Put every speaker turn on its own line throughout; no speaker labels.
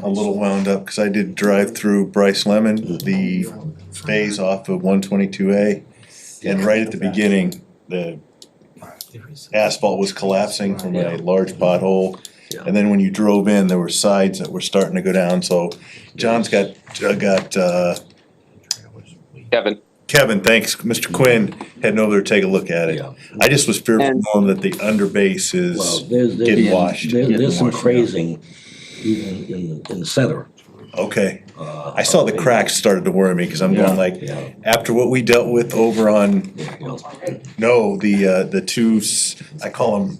a little wound up, cause I did drive through Bryce Lemon, the phase off of one twenty-two A. And right at the beginning, the asphalt was collapsing from a large pothole. And then when you drove in, there were sides that were starting to go down, so John's got, uh, got, uh,
Kevin.
Kevin, thanks, Mr. Quinn, heading over to take a look at it.
Yeah,
I just was fearful
And-
knowing that the underbase
well,
is,
there's,
Getting
there's,
washed.
there- there's some
Getting washed, yeah.
crazing even in, in the center.
okay.
uh,
I saw the cracks started to worry me, cause I'm
Yeah,
going like,
yeah,
after what we dealt with over on,
yeah, yeah.
no, the, uh, the two, s- I call them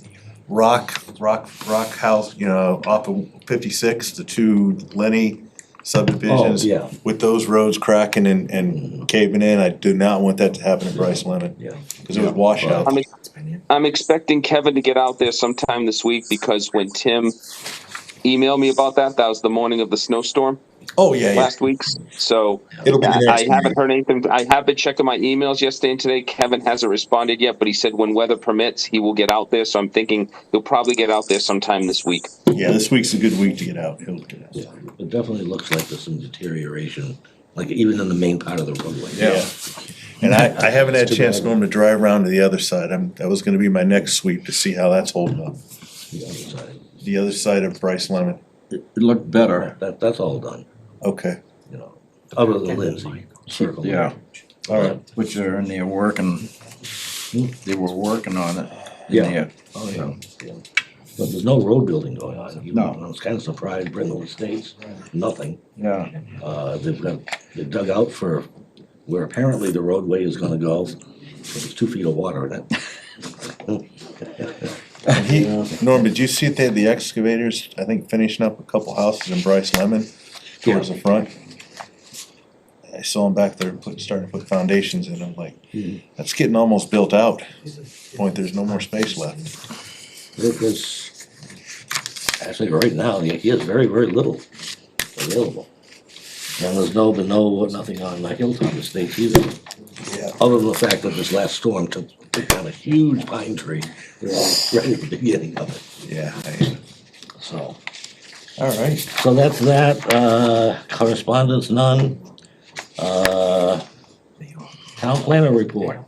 rock, rock, rock house, you know, off of fifty-six, the two Lenny
Oh,
subdivisions.
yeah,
With those roads cracking and, and caving in, I do not want that to happen at Bryce Lemon,
yeah.
cause it was washout.
I'm, I'm expecting Kevin to get out there sometime this week because when Tim emailed me about that, that was the morning of the snowstorm
Oh, yeah, yeah,
last week's. So
it'll be
I,
the
I
next meeting.
haven't heard anything. I have been checking my emails yesterday and today. Kevin hasn't responded yet, but he said when weather permits, he will get out there. So I'm thinking he'll probably get out there sometime this week.
Yeah, this week's a good week to get out. He'll get out.
Yeah, it definitely looks like there's some deterioration, like even in the main part of the roadway.
Yeah. And I, I haven't had a chance, Norm, to drive around to the other side. I'm, that was gonna be my next sweep to see how that's holding up.
The other side.
The other side of Bryce Lemon.
It it looked better,
That, that's all done,
Okay,
you know, other than Lindsay circle.
yeah,
all right.
which are, and they're working, they were working on it. in
Yeah.
there.
Oh, yeah, yeah. But there's no road building going on. You-
No.
I was kind of surprised, Brindle Estates, nothing.
Yeah,
Uh, they've got, they dug out for where apparently the roadway is gonna go. There's two feet of water in it.
And he, Norm, did you see they had the excavators, I think, finishing up a couple houses in Bryce Lemon towards the front? I saw them back there and put, starting to put foundations in. I'm like, that's getting almost built out. Point, there's no more space left.
It was, actually, right now, there is very, very little available. And there's no, but no, nothing on the Hilltop Estates either,
Yeah.
other than the fact that this last storm took took down a huge pine tree right at the beginning of it,
Yeah. I-
so.
All right.
So that's that, uh, correspondence, none. Uh, town planner report.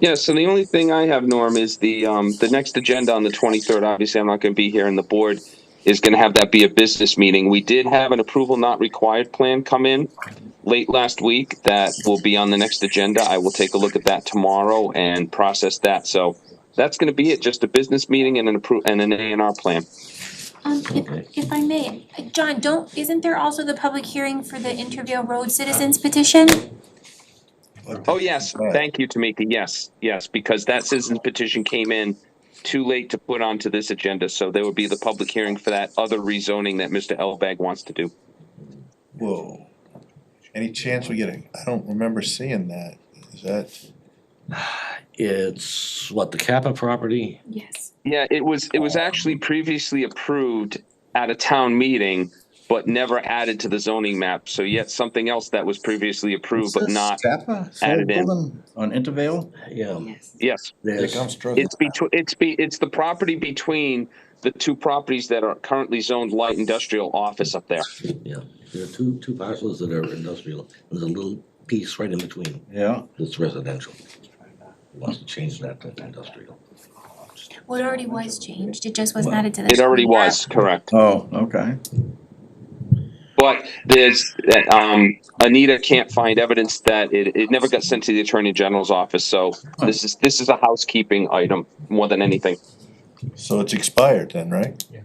Yeah, so the only thing I have, Norm, is the um, the next agenda on the twenty third. Obviously, I'm not going to be here, and the board is going to have that be a business meeting. We did have an approval not required plan come in late last week that will be on the next agenda. I will take a look at that tomorrow and process that. So that's going to be it. Just a business meeting and an appro- and an A and R plan.
Um,
Okay.
if, if I may, uh, John, don't, isn't there also the public hearing for the Intervale Road Citizens petition?
Oh yes,
Right.
thank you, Tamika. Yes, yes, because that citizen petition came in too late to put onto this agenda, so there would be the public hearing for that other rezoning that Mr. Elbag wants to do.
Whoa. Any chance we get a, I don't remember seeing that. Is that?
It's what, the Kappa property?
Yes.
Yeah, it was it was actually previously approved at a town meeting, but never added to the zoning map. So yet something else that was previously approved but not added in.
On Intervale?
Yeah.
Um, yes.
there's-
struggling.
It's between it's be it's the property between the two properties that are currently zoned light industrial office up there.
Yeah, there are two, two parcels that are industrial, and there's a little piece right in between
Yeah,
that's residential. Wants to change that to industrial.
Well, it already was changed, it just wasn't added to the.
It already was, correct.
oh, okay.
But there's, um, Anita can't find evidence that it, it never got sent to the Attorney General's office, so this is, this is a housekeeping item more than anything.
So it's expired then, right?
Yeah,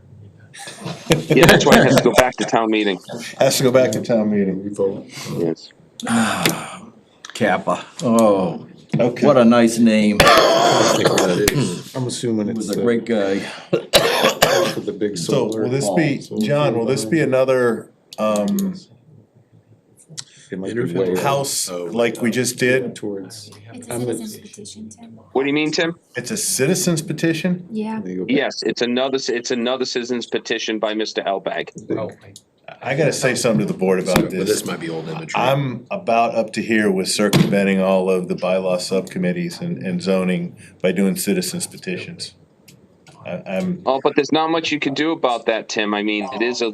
that's why it has to go back to town meeting.
Has to go back to town meeting.
Yes.
Kappa, oh,
Okay.
what a nice name, he
I'm assuming it's uh,
was a
the,
great guy.
the big
So
solar.
will this be,
Solar
John, will this be another, um,
It might be way
house
Oh,
like we just did?
towards.
It's a
I'm a-
citizen's petition, Tim.
What do you mean, Tim?
It's a citizens petition?
Yeah.
they go back
Yes, it's another, it's another citizen's petition by Mr. Elbag.
to the-
I gotta say something to the board
So,
about
but this
this.
might be old imagery.
I'm about up to here with circumventing all of the bylaw subcommittees and, and zoning by doing citizens petitions. I, I'm,
Oh, but there's not much you can do about that, Tim. I mean, it is a